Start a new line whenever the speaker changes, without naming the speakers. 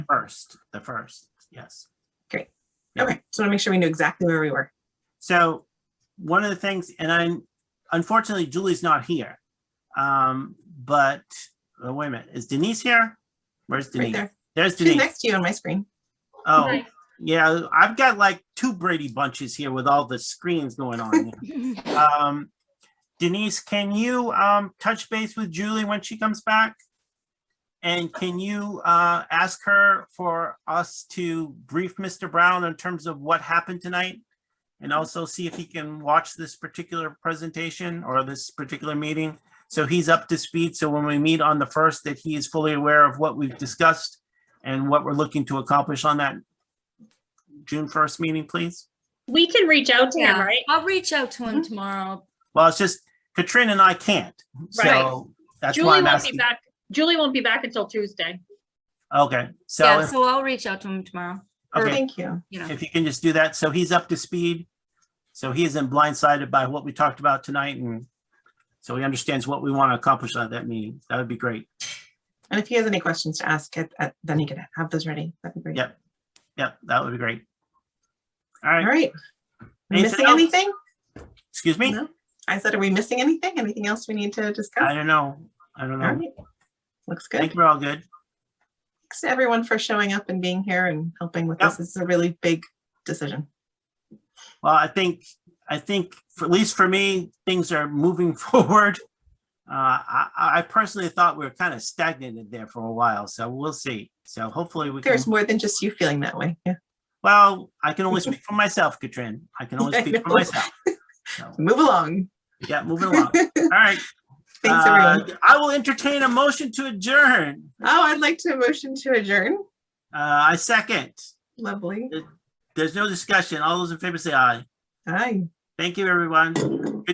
First, the first, yes. Yeah.
Okay, just want to make sure we knew exactly where we were.
So one of the things, and I, unfortunately Julie's not here. Um, but, oh, wait a minute, is Denise here? Where's
Right
Denise?
there.
There's
She's
Denise.
next to you on my screen.
Oh, yeah, I've got like two Brady bunches here with all the screens going on. here. Um, Denise, can you, um, touch base with Julie when she comes back? And can you, uh, ask her for us to brief Mr. Brown in terms of what happened tonight? And also see if he can watch this particular presentation or this particular meeting? So he's up to speed, so when we meet on the first, that he is fully aware of what we've discussed and what we're looking to accomplish on that June first meeting, please?
We can reach out to him,
Yeah,
right?
I'll reach out to him tomorrow.
Well, it's just Katrina and I can't,
Right.
so that's why
Julie
I'm
won't be
asking.
back, Julie won't be back until Tuesday.
Okay, so,
Yeah,
if-
so I'll reach out to him tomorrow,
okay,
Thank you.
you know.
if you can just do that, so he's up to speed. So he isn't blindsided by what we talked about tonight and so he understands what we want to accomplish at that meeting. That would be great.
And if he has any questions to ask, at- at- then he can have those ready. That'd be great.
Yep. Yep, that would be great. All
All
right,
right.
Anything
Missing
else?
anything?
excuse me?
No. I said, are we missing anything? Anything else we need to
I
discuss?
don't know. I don't know.
All right. Looks
I
good.
think we're all good.
Thanks to everyone for showing up and being here and helping with
Yep.
this. This is a really big decision.
Well, I think, I think, for- at least for me, things are moving forward. Uh, I, I personally thought we were kind of stagnated there for a while, so we'll see. So hopefully we can,
There's more than just you feeling that way. Yeah.
well, I can only speak for myself, Katrin. I can only
I
speak for
know.
myself. So,
Move along.
Yeah, moving along. All right.
Thanks,
uh,
everyone.
I will entertain a motion to adjourn.
Oh, I'd like to motion to adjourn.
Uh, I second.
Lovely.
There's no discussion. All those in favor say aye.
Hi.
Thank you, everyone. Good